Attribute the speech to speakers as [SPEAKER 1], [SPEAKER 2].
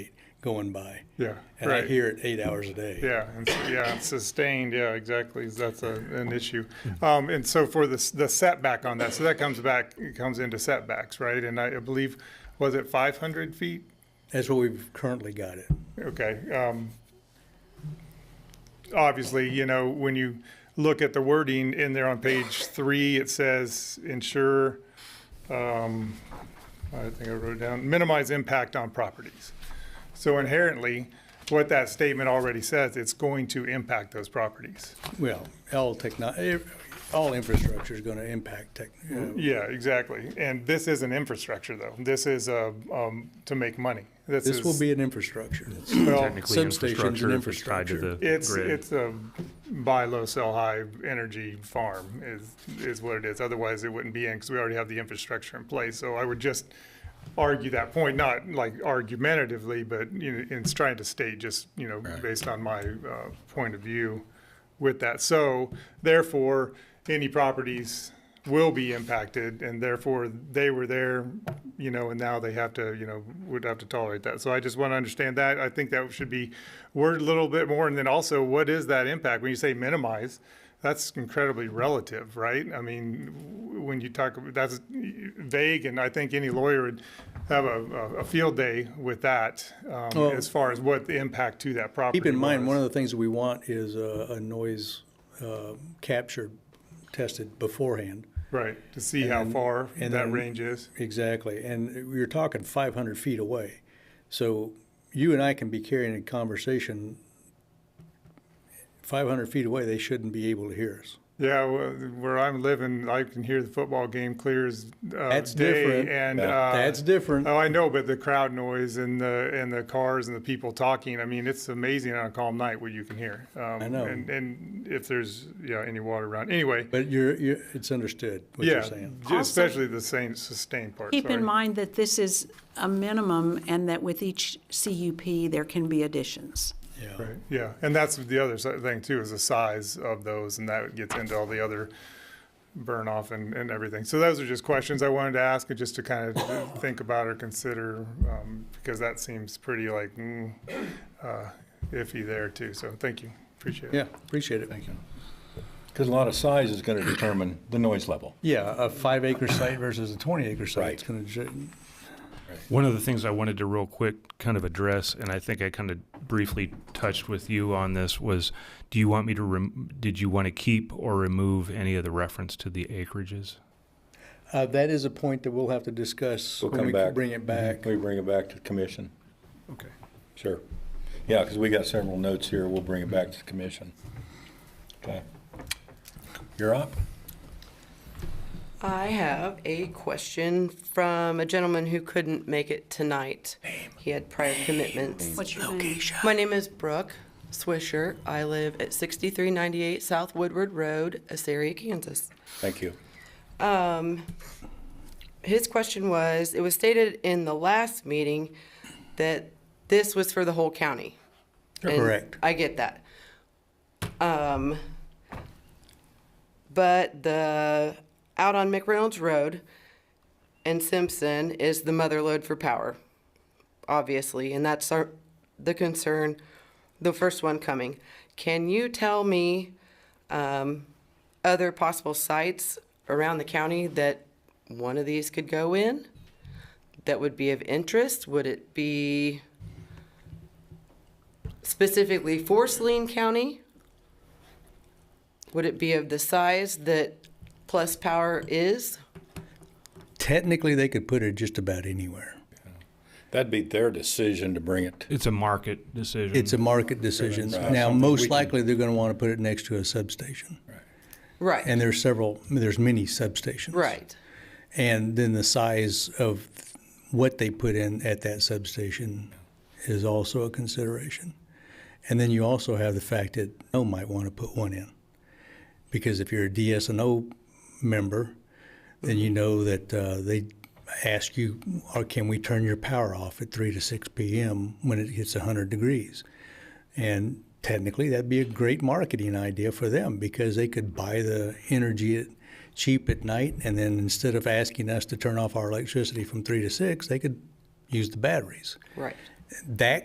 [SPEAKER 1] going by.
[SPEAKER 2] Yeah,
[SPEAKER 1] And I
[SPEAKER 2] right.
[SPEAKER 1] hear it eight hours a day.
[SPEAKER 2] Yeah, and s- yeah, and sustained, yeah, exactly, that's a, an issue.
[SPEAKER 1] Mm-hmm.
[SPEAKER 2] Um, and so for the, s- the setback on that, so that comes back, it comes into setbacks, right? And I believe, was it five hundred feet?
[SPEAKER 1] That's what we've currently got it.
[SPEAKER 2] Okay, um, obviously, you know, when you look at the wording in there on page three, it says ensure, um, I think I wrote it down, minimize impact on properties. So inherently, what that statement already says, it's going to impact those properties.
[SPEAKER 1] Well, all techno, eh, all infrastructure is going to impact tech. you know.
[SPEAKER 2] Yeah, exactly. And this isn't infrastructure though. This is, uh, um, to make money. This is.
[SPEAKER 1] This will be an infrastructure.
[SPEAKER 2] Well,
[SPEAKER 3] Technically
[SPEAKER 1] substations and
[SPEAKER 3] if it's tied to the
[SPEAKER 2] It's,
[SPEAKER 3] grid.
[SPEAKER 2] it's a buy low, sell high energy farm is, is what it is. Otherwise, it wouldn't be in because we already have the infrastructure in place. So I would just argue that point, not like argumentatively, but you know, in trying to state just, you know, based on my uh, point of view with that. So therefore, any properties will be impacted and therefore they were there, you know, and now they have to, you know, would have to tolerate that. So I just want to understand that. I think that should be worded a little bit more. And then also, what is that impact? When you say minimize, that's incredibly relative, right? I mean, w- when you talk, that's vague and I think any lawyer would have a, a- a field day with that um,
[SPEAKER 1] Well-
[SPEAKER 2] as far as what the impact to that property
[SPEAKER 1] Keep in mind,
[SPEAKER 2] was.
[SPEAKER 1] one of the things we want is a, a noise uh, captured, tested beforehand.
[SPEAKER 2] Right, to see how
[SPEAKER 1] And-
[SPEAKER 2] far
[SPEAKER 1] and
[SPEAKER 2] that
[SPEAKER 1] then-
[SPEAKER 2] range is.
[SPEAKER 1] Exactly. And we are talking 500 feet away. So you and I can be carrying a conversation 500 feet away. They shouldn't be able to hear us.
[SPEAKER 2] Yeah, well, where I'm living, I can hear the football game clear as uh,
[SPEAKER 1] That's
[SPEAKER 2] day,
[SPEAKER 1] different.
[SPEAKER 2] and
[SPEAKER 1] Yeah.
[SPEAKER 2] uh,
[SPEAKER 1] That's different.
[SPEAKER 2] Oh, I know, but the crowd noise and the and the cars and the people talking. I mean, it's amazing on a calm night what you can hear. Um, I
[SPEAKER 1] know.
[SPEAKER 2] And, and if there's yeah any water around, anyway.
[SPEAKER 1] But you're, you're, it's understood what
[SPEAKER 2] yeah,
[SPEAKER 1] you're saying.
[SPEAKER 2] j- especially the same sustained part.
[SPEAKER 4] Keep
[SPEAKER 2] sorry.
[SPEAKER 4] in mind that this is a minimum and that with each CUP, there can be additions.
[SPEAKER 1] Yeah.
[SPEAKER 2] Right, yeah, and that's the other si- thing too, is the size of those, and that gets into all the other burn off and, and everything. So those are just questions I wanted to ask, and just to kind of think about or consider, um, because that seems pretty like, mm, uh, iffy there too, so thank you, appreciate it.
[SPEAKER 1] Yeah, appreciate it. Thank you.
[SPEAKER 5] Because a lot of size is going to determine the noise level.
[SPEAKER 1] Yeah, a five acre site versus a 20 acre site. It's gonna ju-
[SPEAKER 3] One of the things I wanted to real quick kind of address, and I think I kind of briefly touched with you on this, was do you want me to, rem- did you want to keep or remove any of the reference to the acreages?
[SPEAKER 1] Uh, that is a point that we'll have to discuss.
[SPEAKER 5] We'll
[SPEAKER 1] when
[SPEAKER 5] come
[SPEAKER 1] we
[SPEAKER 5] back.
[SPEAKER 1] Bring it back.
[SPEAKER 5] We bring it back to the commission.
[SPEAKER 2] Mm-hmm. Okay.
[SPEAKER 5] Sure. Yeah, because we got several notes here. We'll bring it back to the commission. Okay. You're up.
[SPEAKER 6] I have a question from a gentleman who couldn't make it tonight. He had prior commitments.
[SPEAKER 4] What's your name?
[SPEAKER 6] My name is Brooke Swisher. I live at 6398 South Woodward Road, Assyria, Kansas.
[SPEAKER 5] Thank you.
[SPEAKER 6] His question was, it was stated in the last meeting that this was for the whole county. And
[SPEAKER 1] Correct.
[SPEAKER 6] I get that. Um, but the, out on McReynolds Road and Simpson is the mother lode for power, obviously, and that's our, the concern, the first one coming. Can you tell me, um, other possible sites around the county that one of these could go in? That would be of interest? Would it be specifically for Saline County? Would it be of the size that Plus Power is?
[SPEAKER 1] Technically, they could put it just about anywhere.
[SPEAKER 5] That'd be their decision to bring it.
[SPEAKER 3] It's a market decision.
[SPEAKER 1] It's a market decision.
[SPEAKER 5] Right.
[SPEAKER 1] Now,
[SPEAKER 5] Something
[SPEAKER 1] most
[SPEAKER 5] we can-
[SPEAKER 1] likely, they're gonna wanna put it next to a substation.
[SPEAKER 6] Right,
[SPEAKER 1] And there's several, there's many substations.
[SPEAKER 6] right.
[SPEAKER 1] And then the size of what they put in at that substation is also a consideration. And then you also have the fact that O might want to put one in. Because if you're a DSNO member, then you know that uh, they ask you, or can we turn your power off at 3 to 6 p.m. when it hits 100 degrees? And technically, that'd be a great marketing idea for them because they could buy the energy at, cheap at night, and then instead of asking us to turn off our electricity from three to six, they could use the batteries.
[SPEAKER 6] Right.
[SPEAKER 1] That